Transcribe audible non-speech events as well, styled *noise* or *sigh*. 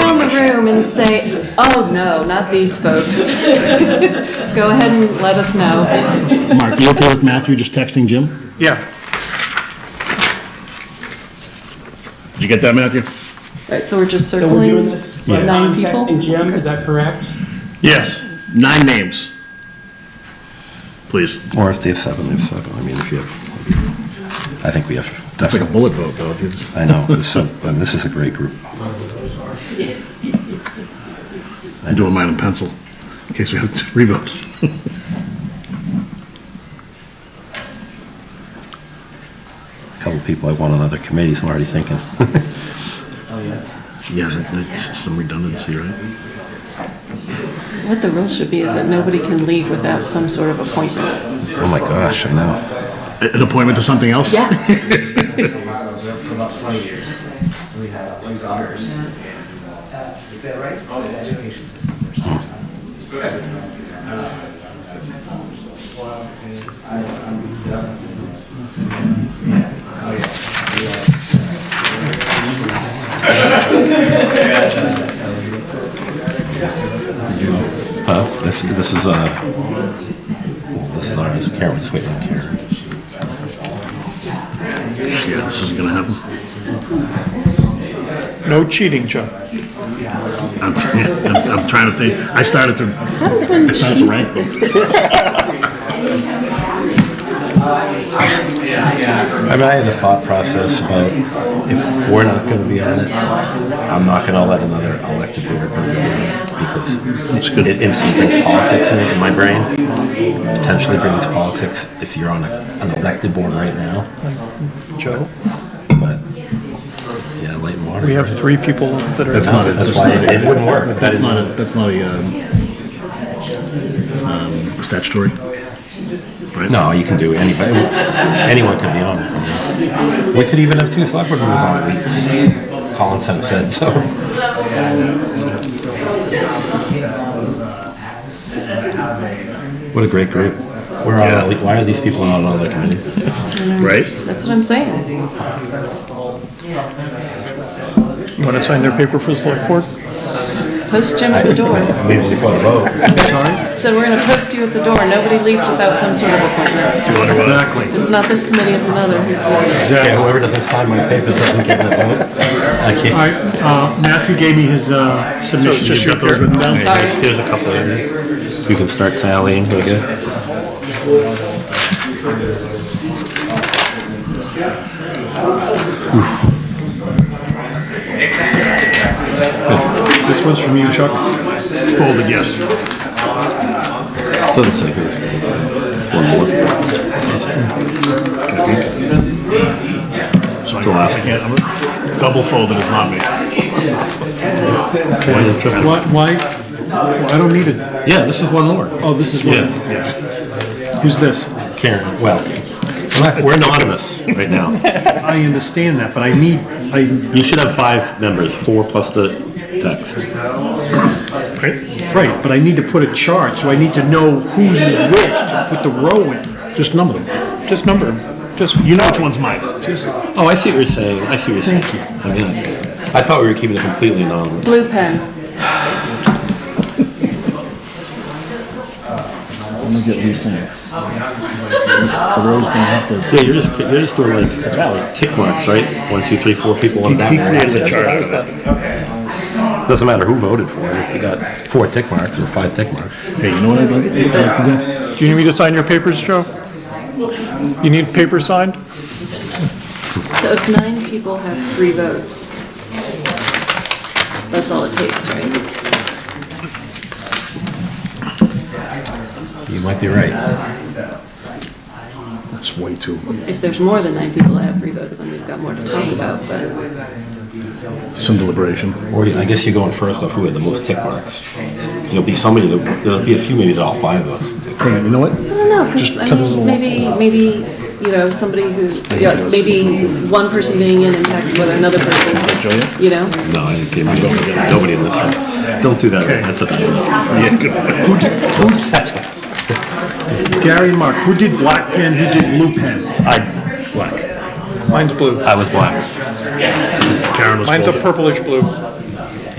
them and say, oh, no, not these folks. *laughs* Go ahead and let us know. Mark, you okay with Matthew just texting Jim? Yeah. Did you get that, Matthew? Right, so we're just So we're circling doing this by nine contact and people? Jim, is that correct? Yes. Nine names. Please. Or if they have seven, they have seven. I mean, if you have, I think we have, That's like a bullet vote, though, if you just... I know, this is, a- this is a great group. I'm doing mine in pencil, in case we have to revote. A Couple people I want on other committees, I'm already thinking. oh Yes, I think some redundancy, right? What the rule should be is that nobody can leave without some sort of appointment. Oh my gosh, I know. A- An appointment to something else? *laughs* Yeah, for about twenty years. We have two daughters. Is that right? Oh, yeah. Education system. It's good. Huh? This, this is, uh, well, this is ours, Karen's waiting here. Yeah, this isn't gonna happen. No cheating, Joe. I'm, *laughs* I'm I'm trying to think, I started to, how does one I started to rank them. I mean, I had a thought process about if we're not gonna be on it, I'm not gonna let another elected board member be on it because it's good. It instantly brings politics in, in my brain. Potentially brings politics if you're on a, an elected board right now, Joe, but yeah, light and water. we have three people that That's are, not it. That's why it- it wouldn't work. That's not a, that's not a, um, um, statutory. No, you can do anybody. Anyone can be on it. We could even have two select board members on it. Colin Center said so. What a great group. Where are, why are these people not on other committees? Right? That's what I'm saying. you want to sign their paper for the select board? Post Jim at the door. Maybe before the vote. So we're gonna post you at the door. Nobody leaves without some sort of appointment. Exactly. It's not this committee, it's another. Yeah, whoever doesn't sign my papers doesn't get the vote. I All can't. right, uh, Matthew gave me his uh, submission. just You've got your those written down? Sorry. Here's- Here's a couple of them. You can start tallying, I guess. This one's from you, Chuck. Folded, yes. Doesn't say who's. It's one more. So I the last I can't, I'm- double folded is not me. Why, why, well, I don't need it. Yeah, this is one more. Oh, this is one. Yeah, yeah. Who's this? Karen, well, we're anonymous right now. *laughs* I understand that, but I need, I, You should have five members, four plus the text. right, but I need to put a chart, so I need to know whose is which to put the row in. Just number them. Just number them. Just, You know which one's mine. Oh, I see what you're saying, I see what you're saying. I mean, I thought we were keeping it completely anonymous. Blue pen. I'm gonna get these things. The row's gonna have to. Yeah, you're just, you're just doing like tick marks, right? One, two, three, four people on that He one. created a That's it. chart out of that. Doesn't matter who voted for it, if you got four tick marks or five tick marks. Hey, you know what I'd like like to do you need me to sign your papers, Joe? You need paper signed? So if nine people have three votes, that's all it takes, right? You might be right. do? That's way too. If there's more than nine people that have three votes, then we've got more to talk about, but Some deliberation. Or you- I guess you're going first off who had the most tick marks. There'll be somebody, that- there'll be a few maybe that all five of us. do. Hey, you know what? I don't know, because, Just I cut this a mean, little- maybe, maybe, you know, somebody who, yeah, maybe one person being in impacts whether another person, you know? No, I didn't give a- nobody in this room. Don't do that, that's a Yeah, good. Who did- who did- Gary and Mark, who did black pen, who did blue pen? I, black. Mine's blue. I was black. Karen was Mine's a folded. purplish blue.